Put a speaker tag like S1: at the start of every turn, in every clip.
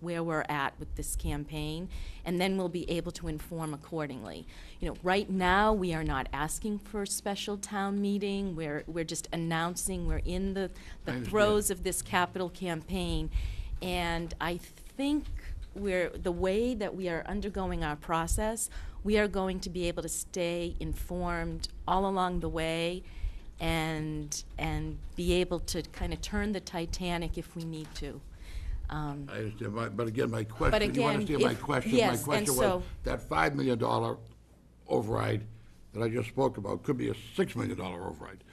S1: where we're at with this campaign, and then we'll be able to inform accordingly. You know, right now, we are not asking for a special town meeting, we're, we're just announcing we're in the,
S2: I
S1: the
S2: understand.
S1: throes of this capital campaign, and I think we're, the way that we are undergoing our process, we are going to be able to stay informed all along the way and, and be able to kind of turn the Titanic if we need to. Um,
S2: I understand, my- but again, my question, you
S1: again,
S2: understand my
S1: if-
S2: question?
S1: yes, and
S2: My question was,
S1: so-
S2: that $5 million override that I just spoke about could be a $6 million override.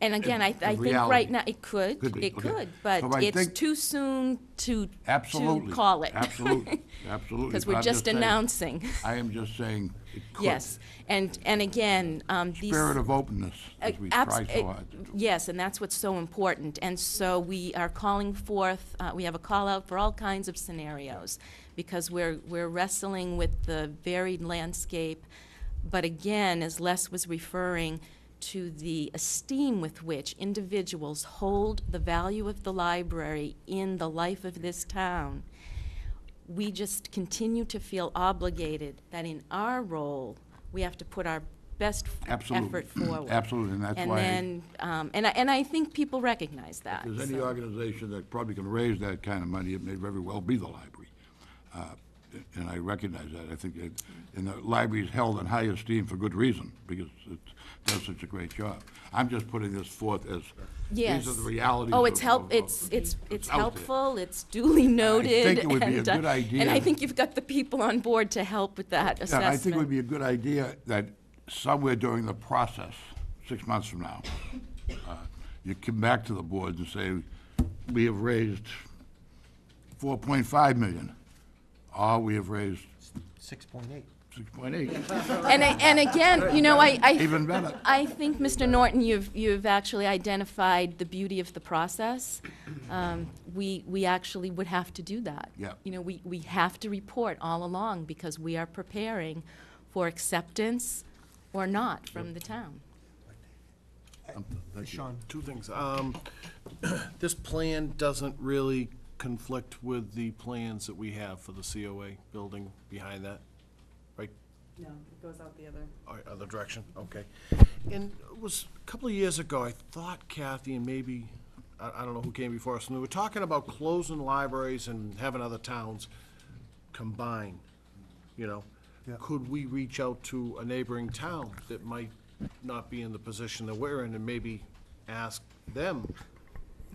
S1: And again, I, I
S2: in
S1: think
S2: reality.
S1: right now, it could,
S2: Could be,
S1: it
S2: okay.
S1: could, but
S2: So I
S1: it's
S2: think-
S1: too soon to,
S2: Absolutely.
S1: to call it.
S2: Absolutely, absolutely.
S1: Because
S2: But
S1: we're
S2: I'm
S1: just
S2: saying-
S1: announcing.
S2: I am just saying it could.
S1: Yes, and, and again, um, these. Uh,
S2: Spirit of openness, as we
S1: Abs-
S2: try
S1: it-
S2: so hard to do.
S1: Yes, and that's what's so important. And so we are calling forth, uh, we have a call out for all kinds of scenarios because we're, we're wrestling with the varied landscape. But again, as Les was referring to the esteem with which individuals hold the value of the library in the life of this town, we just continue to feel obligated that in our role, we have to put our best f-
S2: Absolutely.
S1: effort forward.
S2: Absolutely, and that's
S1: And
S2: why I-
S1: then, um, and I, and I think people recognize that.
S2: If there's any
S1: so-
S2: organization that probably can raise that kind of money, it may very well be the library. Uh, And I recognize that. I think that, and the library is held in high esteem for good reason, because it does such a great job. I'm just putting this forth as,
S1: Yes.
S2: these are the realities.
S1: Oh, it's
S2: of-
S1: help,
S2: of-
S1: it's,
S2: of-
S1: it's, it's
S2: out there.
S1: helpful, it's duly noted.
S2: it would be a
S1: and, uh,
S2: good idea.
S1: And I think you've got the people on board to help with that assessment.
S2: Yeah, I think it would be a good idea that somewhere during the process, six months from now, uh, you come back to the board and say, we have raised 4.5 million, or we have raised
S3: Six point eight.
S2: 6.8.
S1: And, I- and again, you know, I, I.
S2: Even better.
S1: I think, Mr. Norton, you've, you've actually identified the beauty of the process. Um, We, we actually would have to do that.
S2: Yeah.
S1: You know, we, we have to report all along because we are preparing for acceptance or not from the town.
S3: Sean,
S4: Two things. Um, This plan doesn't really conflict with the plans that we have for the COA building behind that, right?
S5: No, it goes out the other.
S4: Or Other direction, okay. And it was, a couple of years ago, I thought Kathy and maybe, I I don't know who came before us, and we were talking about closing libraries and having other towns combine, you know?
S3: Yeah.
S4: Could we reach out to a neighboring town that might not be in the position that we're in and maybe ask them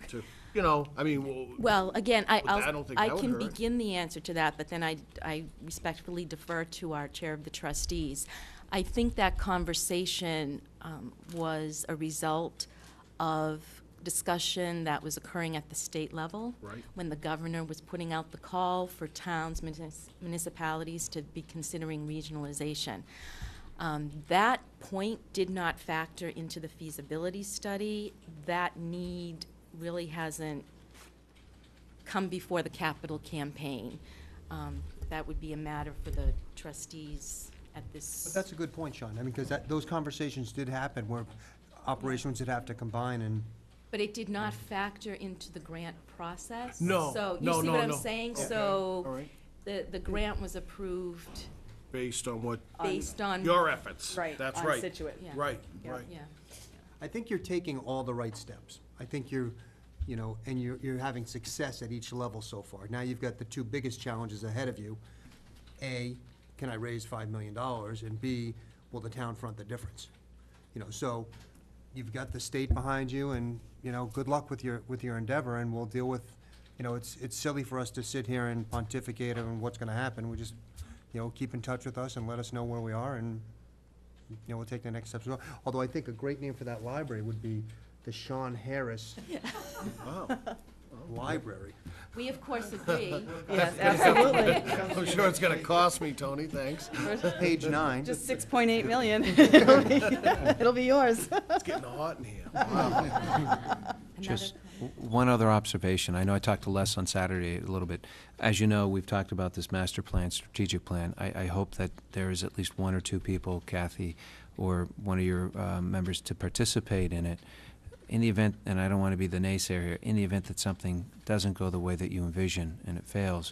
S4: to, you know, I mean, well,
S1: Well, again, I,
S4: But I
S1: I'll,
S4: don't think
S1: I
S4: that would
S1: can
S4: hurt.
S1: begin the answer to that, but then I, I respectfully defer to our Chair of the Trustees. I think that conversation um, was a result of discussion that was occurring at the state level.
S4: Right.
S1: When the governor was putting out the call for towns, munis- municipalities to be considering regionalization. Um, That point did not factor into the feasibility study. That need really hasn't come before the capital campaign. Um, That would be a matter for the trustees at this.
S3: but that's a good point, Sean, I mean, because that, those conversations did happen where operations would have to combine and,
S1: But it did not factor into the grant process.
S4: No,
S1: So, you
S4: no,
S1: see
S4: no,
S1: what I'm
S4: no.
S1: saying?
S4: Okay, all
S1: So,
S4: right.
S1: the, the grant was approved
S4: based on what,
S1: based on.
S4: your efforts.
S5: Right,
S4: That's
S5: on
S4: right.
S5: Situate.
S1: Yeah.
S4: Right,
S5: Yeah.
S4: right.
S1: Yeah.
S3: I think you're taking all the right steps. I think you're, you know, and you're, you're having success at each level so far. Now you've got the two biggest challenges ahead of you. A, can I raise five million dollars? And B, will the town front the difference? You know, so you've got the state behind you and, you know, good luck with your, with your endeavor and we'll deal with, you know, it's, it's silly for us to sit here and pontificate on what's gonna happen. We just, you know, keep in touch with us and let us know where we are and you know, we'll take the next steps. as well. Although I think a great name for that library would be the Sean Harris
S4: Wow.
S3: Library.
S1: We, of course, agree.
S5: Yes, absolutely.
S4: I'm sure it's gonna cost me, Tony, thanks.
S3: Page nine.
S5: Just six point eight million. It'll be- it'll be yours.
S4: It's getting hot in here.
S1: Another
S6: Just w- one other observation. I know I talked to Les on Saturday a little bit. As you know, we've talked about this master plan, strategic plan. I, I hope that there is at least one or two people, Kathy, or one of your uh, members, to participate in it. In the event, and I don't want to be the naysayer here, in the event that something doesn't go the way that you envision and it fails,